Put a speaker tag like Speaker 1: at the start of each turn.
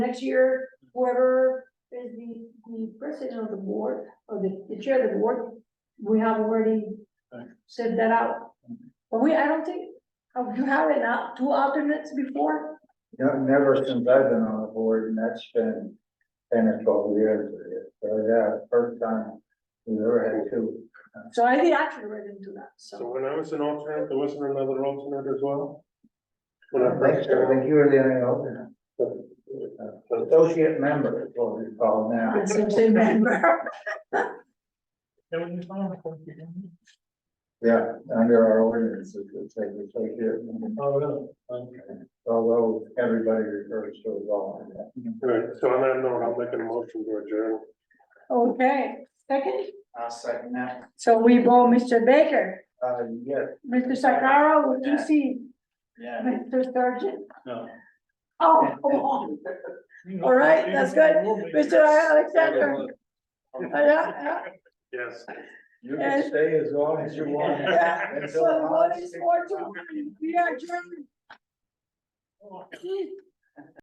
Speaker 1: Next year, whoever is the, the president of the board, or the, the chair of the board, we have already
Speaker 2: Right.
Speaker 1: said that out. But we, I don't think, have you had an out, two alternates before?
Speaker 2: No, never since I've been on the board, and that's been ten or twelve years. So, yeah, first time we ever had two.
Speaker 1: So I did actually read into that,
Speaker 3: So
Speaker 1: so.
Speaker 3: when I was an alternate, there wasn't another alternate as well? When I
Speaker 2: I
Speaker 3: first
Speaker 2: think so, I
Speaker 3: started.
Speaker 2: think you were the only alternate.
Speaker 3: So-
Speaker 2: Associate member is what we call now.
Speaker 1: It's a member.
Speaker 2: Yeah, under our ordinance, it would say associate. member.
Speaker 3: Oh, really? Okay.
Speaker 2: Although everybody refers to it all.
Speaker 3: All right, so on that note, I'll make a motion to adjourn.
Speaker 1: Okay, second,
Speaker 2: I'll second that.
Speaker 1: so we vote Mr. Baker,
Speaker 2: Uh, yes,
Speaker 1: Mr. Sakara, what do you see,
Speaker 2: yeah.
Speaker 1: Mr. Sturgeon?
Speaker 2: No.
Speaker 1: Oh, come on, all right, that's good, Mr. Alexander. Uh, yeah,
Speaker 3: Yes.
Speaker 2: You
Speaker 1: Yes.
Speaker 2: can stay as long as you want.
Speaker 1: Yeah.
Speaker 2: Until
Speaker 1: So what is
Speaker 2: August
Speaker 1: four to
Speaker 2: 16th.
Speaker 1: one? We are German.